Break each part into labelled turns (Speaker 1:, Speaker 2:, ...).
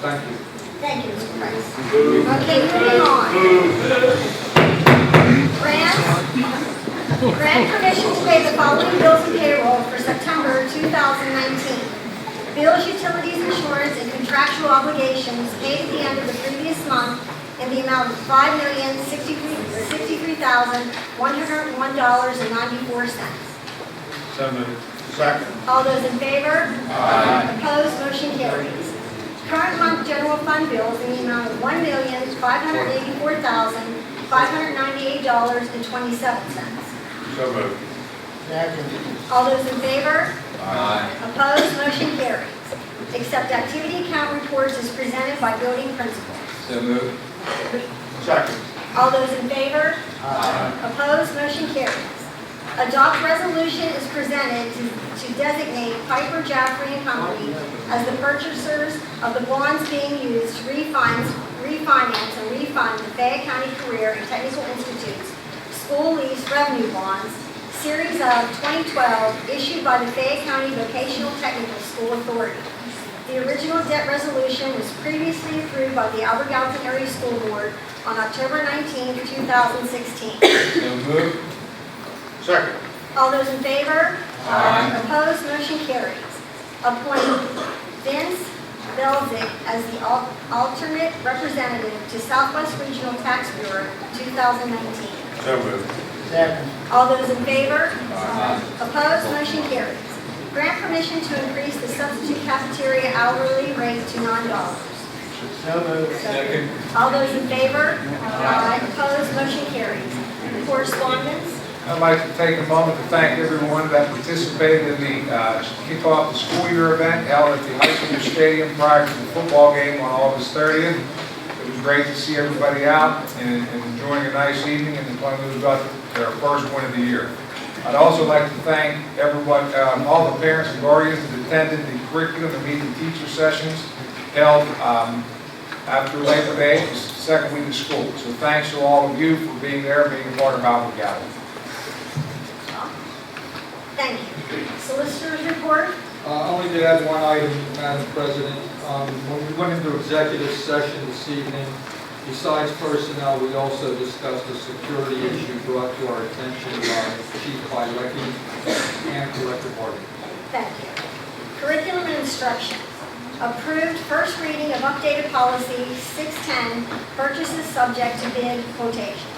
Speaker 1: Thank you.
Speaker 2: Thank you, Mr. Price. Okay, moving on. Grant, grant permission to pay the following bills and payroll for September 2019. Bills, utilities, insurance, and contractual obligations paid at the end of the previous month in the amount of $5,063,101.94.
Speaker 1: So moved. Second.
Speaker 2: All those in favor? Opposed, motion carries. Current month general fund bills in the amount of one million, five hundred eighty-four thousand, five hundred ninety-eight dollars and twenty-seven cents.
Speaker 1: So moved.
Speaker 2: All those in favor? Opposed, motion carries. Accept activity account reports as presented by building principal.
Speaker 3: So moved.
Speaker 1: Second.
Speaker 2: All those in favor? Opposed, motion carries. Adopt resolution is presented to to designate Piper Jaffray and Company as the purchasers of the bonds being used to refinance, refinance and refund the Fayette County Career and Technical Institute's school lease revenue bonds, series of 2012, issued by the Fayette County Vocational Technical School Authority. The original debt resolution was previously approved by the Albert Gallatin Area School Board on October 19, 2016.
Speaker 3: So moved.
Speaker 1: Second.
Speaker 2: All those in favor? Opposed, motion carries. Appoint Vince Belzick as the al- alternate representative to Southwest Regional Tax Bureau 2019.
Speaker 1: So moved.
Speaker 2: All those in favor? Opposed, motion carries. Grant permission to increase the substitute cafeteria hourly rate to $9.
Speaker 3: Second.
Speaker 2: All those in favor? Aye. Opposed, motion carries. Correspondence?
Speaker 4: I'd like to take a moment to thank everyone that participated in the uh, kickoff of the school year event held at the high school stadium prior to the football game on August 30th. It was great to see everybody out and and enjoying a nice evening and the Clemson got their first win of the year. I'd also like to thank everyone, um, all the parents and guardians that attended the curriculum and meeting teacher sessions held um, after Labor Day, the second week of school. So thanks to all of you for being there, being a part of Alpha Gathering.
Speaker 2: Thank you. Solicitors report?
Speaker 5: Uh, Only to add one item, Madam President. Um, When we went into executive session this evening, besides personnel, we also discussed a security issue brought to our attention by Chief Pilecki and Director Barton.
Speaker 2: Thank you. Curriculum and instruction. Approved first reading of updated policy 610, purchases subject to bid quotation.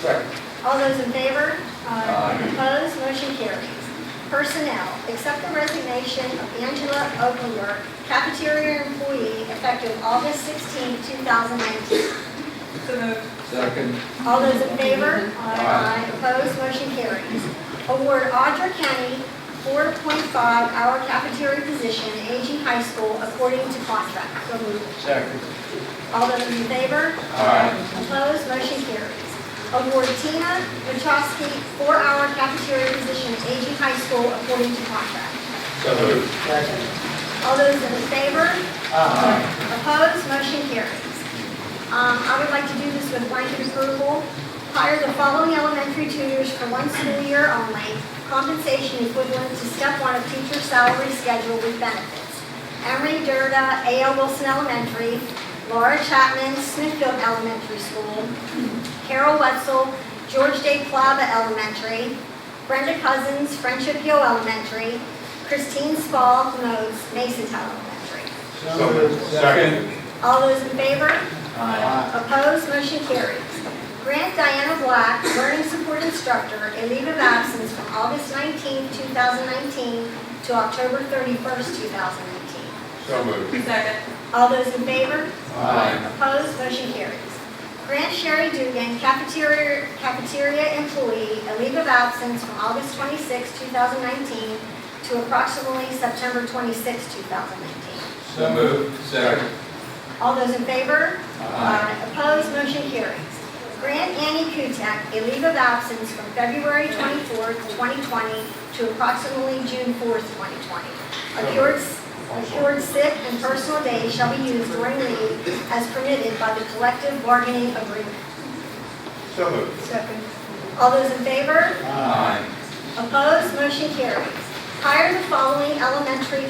Speaker 1: Second.
Speaker 2: All those in favor? Opposed, motion carries. Personnel, accept the resignation of Angela Ogler, cafeteria employee, effective August 16, 2019.
Speaker 3: Second.
Speaker 2: All those in favor? Aye. Opposed, motion carries. Award Audra Kenny 4.5-hour cafeteria position at AG High School according to contract. So moved.
Speaker 1: Second.
Speaker 2: All those in favor? Aye. Opposed, motion carries. Award Tina Wachowski four-hour cafeteria position at AG High School according to contract.
Speaker 1: So moved.
Speaker 2: All those in favor? Aye. Opposed, motion carries. Um, I would like to do this with blanket approval. Hire the following elementary tutors for one school year only. Compensation equivalent to step one of teacher salary schedule with benefits. Emery Durda, A.L. Wilson Elementary, Laura Chapman, Smithfield Elementary School, Carol Wetzel, George J. Plava Elementary, Brenda Cousins, Friendship Hill Elementary, Christine Spall, Modes, Mason Town Elementary.
Speaker 1: So moved. Second.
Speaker 2: All those in favor? Opposed, motion carries. Grant Diana Black, Learning Support Instructor, a leave of absence from August 19, 2019 to October 31st, 2019.
Speaker 1: So moved.
Speaker 6: Second.
Speaker 2: All those in favor?
Speaker 3: Aye.
Speaker 2: Opposed, motion carries. Grant Sherry Dugan, cafeteria, cafeteria employee, a leave of absence from August 26, 2019 to approximately September 26, 2019.
Speaker 3: So moved. Second.
Speaker 2: All those in favor? Aye. Opposed, motion carries. Grant Annie Kutek a leave of absence from February 24th, 2020 to approximately June 4th, 2020. Accrued accrued sick and personal days shall be used during the leave as permitted by the collective bargaining agreement.
Speaker 1: So moved.
Speaker 2: All those in favor?
Speaker 3: Aye.
Speaker 2: Opposed, motion carries. Hire the following elementary